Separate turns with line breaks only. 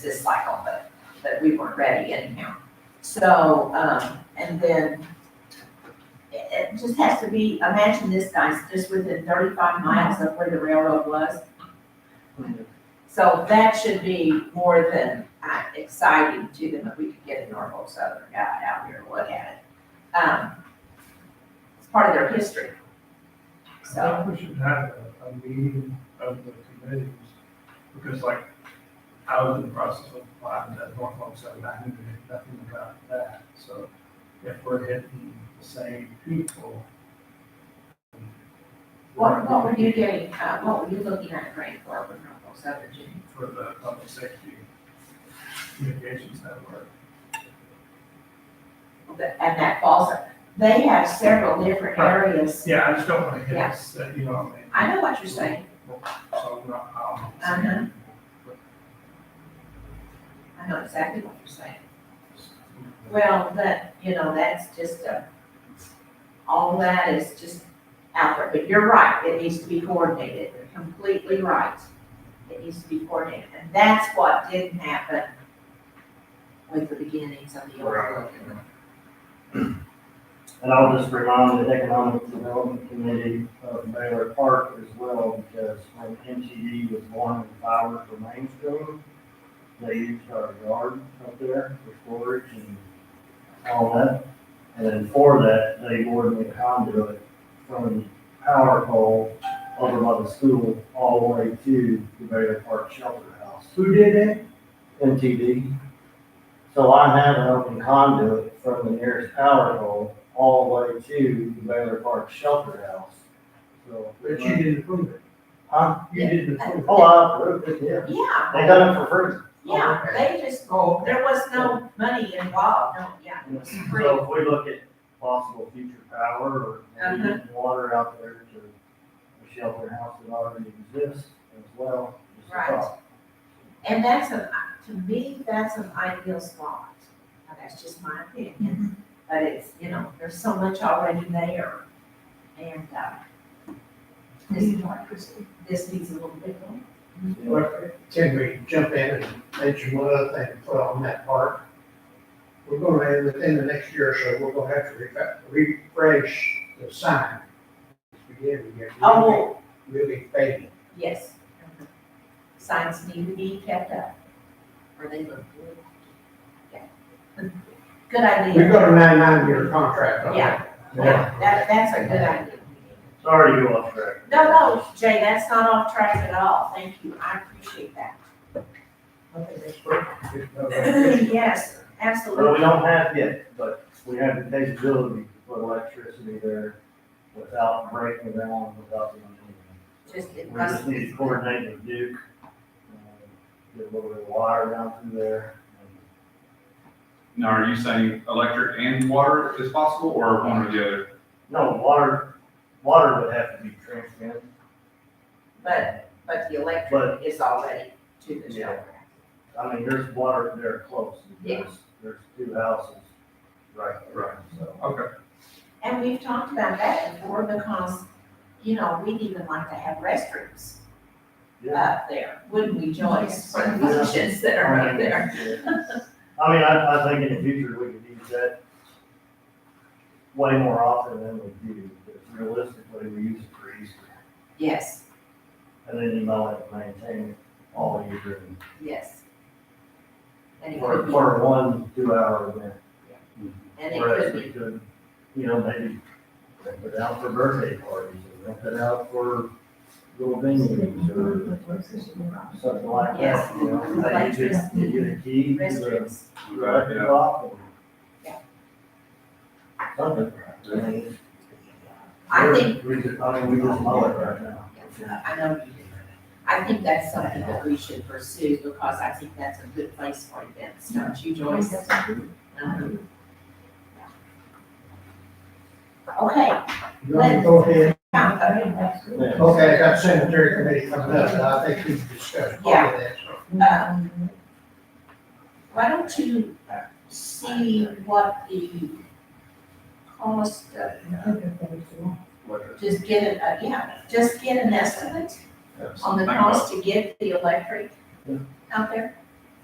this cycle, but, but we weren't ready anyhow. So, um, and then it, it just has to be, imagine this guy's just within thirty-five miles of where the railroad was. So that should be more than uh, exciting to them if we could get a Norfolk Southern guy out here to look at it. Um, It's part of their history. So,
I think we should have a, a meeting of the committees, because like, I was in the process of applying to Norfolk Southern, I knew nothing about that, so if we're hitting the same people.
what, what were you getting, uh, what were you looking at grant for with Norfolk Southern, Jimmy?
For the public safety communications network.
that- and that falls, they have several different areas.
Yeah, I just don't wanna hit,
Yeah.
us, uh, you know, what I mean.
I know what you're saying,
So we're not, um,
Uh-huh. I know exactly what you're saying. Well, that, you know, that's just a, all that is just out there, but you're right, it needs to be coordinated, you're completely right. It needs to be coordinated, and that's what didn't happen with the beginnings of the old curriculum.
And I'll just remind the Economic Development Committee of Baylor Park as well, because when MTE was born and flowers were mainstream, they used our yard up there for storage and all that. And then for that, they bored me a conduit from power pole over by the school all the way to the Baylor Park Shelter House. Who did it? MTD. So I have an open conduit from the nearest power pole all the way to the Baylor Park Shelter House. So.
But you didn't approve it,
Huh?
you didn't approve
Oh, I approved it, yeah.
Yeah,
They done it for free.
yeah, they just, there was no money involved, no, yeah, it was free.
So if we look at possible future power or
Uh-huh.
maybe water out there to a shelter house that already exists as well. is a
Right.
thought.
And that's an, to me, that's an ideal spot. Now, that's just my opinion, but it's, you know, there's so much already there. And, uh, this, this needs a little bit more.
Well, Can we jump in and mention one other thing to put on that park? We're gonna, end within the next year or so, we're gonna have to refa- refresh the sign. It's beginning to get really,
Oh,
really fading.
yes. Signs need to be kept up, or they look good. Yeah. Good
We've
idea.
got a nine-nine-year contract on
Yeah.
that.
Yeah, that, that's a good idea.
Sorry, you off track.
No, no, Jay, that's not off track at all. Thank you. I appreciate that.
Okay, that's perfect. Just, uh,
Yes,
Well, we
absolutely.
don't have yet, but we have the capability to put electricity there without breaking down, without doing anything.
Just, it
We just
must,
need to coordinate with Duke, uh, get a little bit of wire down through there.
Now, are you saying electric and water is possible, or one or the other?
No, water, water would have to be transmitted.
but, but the electric is already to the
Yeah.
shelter.
I mean, there's water there close,
Yeah.
there's, there's two houses right there, so.
Okay,
And we've talked about that before because, you know, we'd even like to have restrooms
yeah.
up there, wouldn't we, Joyce? For the
Yeah.
functions that are up there.
Yeah. I mean, I, I think in the future, we could use that way more often than we do, but realistically, we use it for Easter.
Yes,
And then you might have to maintain it all year, and
yes. And it
for,
could be,
for one, two hour event.
and it
Whereas
could
we
be,
could, you know, maybe rent it out for birthday parties, or rent it out for little venues, or something like
Yes.
that, you know? Like you just, you get a key, you uh,
restrooms.
Right,
let it
yeah.
off,
Yeah.
and something. I mean,
I
we're-
think,
We just, I mean, we just mull it right now.
I know you do. I think that's something that we should pursue because I think that's a good place for events, don't you, Joyce? Uh-huh. Okay,
You want to go ahead?
Yeah.
Okay, I got sanitary committee coming up, and I think we've discussed all of that, so.
Um, Why don't you see what the cost of, just get it, uh, yeah, just get an estimate on the cost to get the electric out there?